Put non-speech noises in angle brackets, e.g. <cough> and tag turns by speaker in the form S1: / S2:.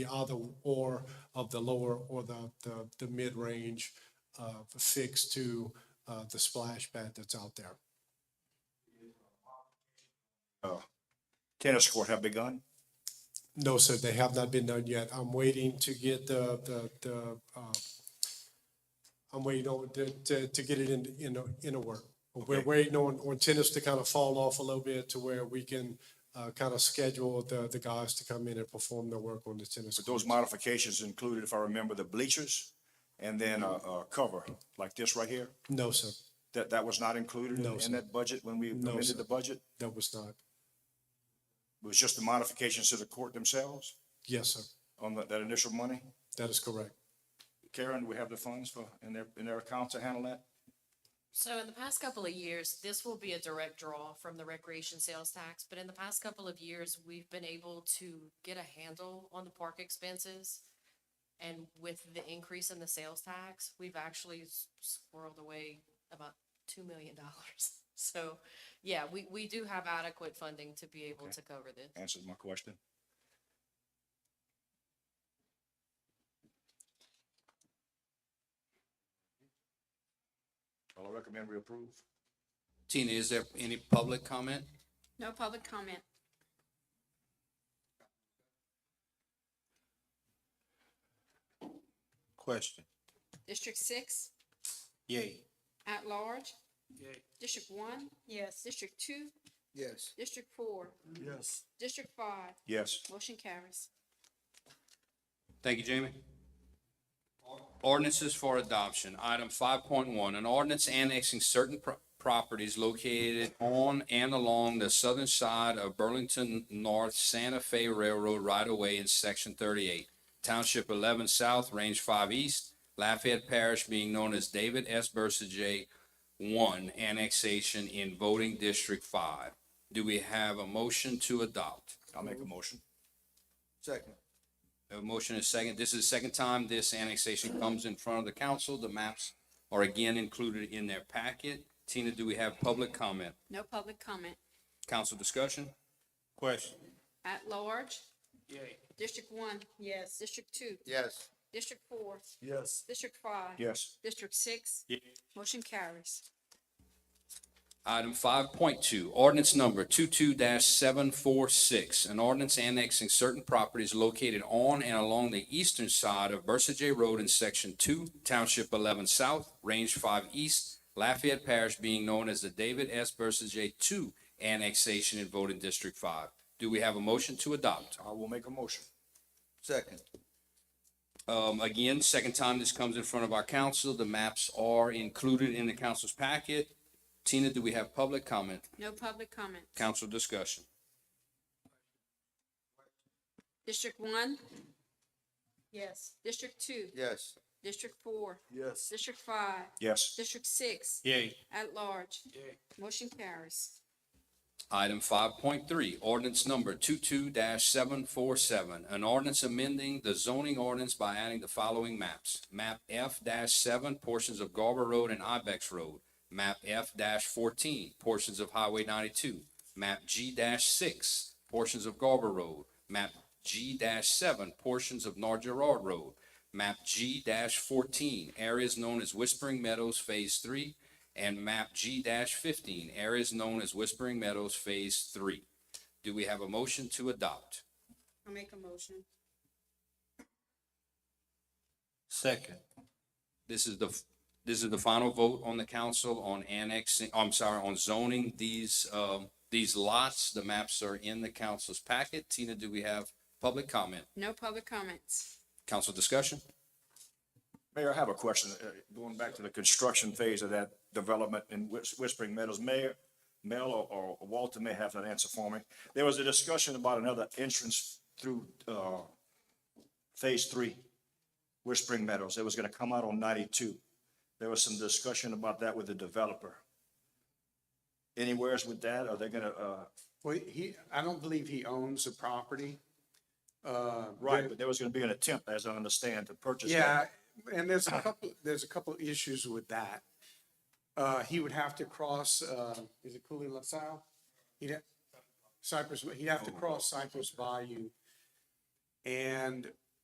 S1: the other or of the lower or the, the, the mid-range uh, fixed to uh, the splash pad that's out there.
S2: tennis court have begun?
S1: No, sir, they have not been done yet. I'm waiting to get the, the, the, uh, I'm waiting on, to, to, to get it in, in, a- in a work. We're
S2: Okay.
S1: waiting on, on tennis to kind of fall off a little bit to where we can, uh, kind of schedule the, the guys to come in and perform their work on the tennis.
S2: But those modifications included, if I remember, the bleachers and then a, a cover like this right here?
S1: No, sir,
S2: That, that was not included in-
S1: No, sir.
S2: in that budget when we
S1: No, sir.
S2: amended the budget?
S1: that was not.
S2: It was just the modifications to the court themselves
S1: Yes, sir,
S2: on that, that initial money?
S1: that is correct.
S2: Karen, do we have the funds for, in their, in their accounts to handle that?
S3: So in the past couple of years, this will be a direct draw from the recreation sales tax, but in the past couple of years, we've been able to get a handle on the park expenses. And with the increase in the sales tax, we've actually s- squirreled away about two million dollars. <laughs> So, yeah, we, we do have adequate funding to be able to cover this.
S2: Answers my question. Well, I recommend we approve.
S4: Tina, is there any public comment?
S5: No public comment.
S6: Question.
S5: District six,
S6: Yay.
S5: at large. District one. Yes. District two,
S6: Yes.
S5: district four. Yes. District five,
S2: Yes.
S5: motion carries.
S4: Thank you, Jamie. Ordinances for adoption. Item five point one, an ordinance annexing certain pro- properties located on and along the southern side of Burlington North Santa Fe Railroad right-of-way in section thirty-eight, township eleven south, range five east, Lafayette Parish being known as David S. Bursa J. One annexation in voting district five. Do we have a motion to adopt?
S2: I'll make a motion.
S6: Second.
S4: A motion is second. This is the second time this annexation comes in front of the council. The maps are again included in their packet. Tina, do we have public comment?
S5: No public comment.
S4: Council discussion?
S6: Question.
S5: At large. District one. Yes. District two,
S6: Yes.
S5: district four. Yes. District five.
S2: Yes.
S5: District six. Motion carries.
S4: Item five point two, ordinance number two-two seven four six, an ordinance annexing certain properties located on and along the eastern side of Versa J Road in section two, township eleven south, range five east, Lafayette Parish being known as the David S. Versa J two annexation in voting district five. Do we have a motion to adopt?
S2: I will make a motion.
S6: Second.
S4: Um, again, second time this comes in front of our council. The maps are included in the council's packet. Tina, do we have public comment,
S5: No public comment.
S4: council discussion?
S5: District one. Yes. District two,
S6: Yes.
S5: district four. Yes. District five,
S2: Yes.
S5: district six,
S6: Yay.
S5: at large. Motion carries.
S4: Item five point three, ordinance number two-two seven four seven, an ordinance amending the zoning ordinance by adding the following maps. Map F seven, portions of Garber Road and Ibex Road. Map F fourteen, portions of Highway ninety-two. Map G six, portions of Garber Road. Map G seven, portions of North Gerard Road. Map G fourteen, areas known as Whispering Meadows Phase Three, and map G fifteen, areas known as Whispering Meadows Phase Three. Do we have a motion to adopt?
S5: I'll make a motion.
S6: Second.
S4: This is the, f- this is the final vote on the council on annexing, I'm sorry, on zoning these, um, these lots. The maps are in the council's packet. Tina, do we have public comment?
S5: No public comments.
S4: Council discussion?
S2: Mayor, I have a question, uh, going back to the construction phase of that development in Whis- Whispering Meadows. Mayor, Mel or- or Walter may have an answer for me. There was a discussion about another entrance through, uh, Phase Three, Whispering Meadows. It was gonna come out on ninety-two. There was some discussion about that with the developer. Anywheres with that? Are they gonna, uh,
S7: Well, he, I don't believe he owns the property. Uh,
S2: right,
S7: but-
S2: but there was gonna be an attempt, as I understand, to purchase that.
S7: Yeah, and there's a couple, there's a couple issues with that. Uh, he would have to cross, uh, is it Cooley LaSalle? He'd, ha- Cypress, he'd have to cross Cypress Bayou. And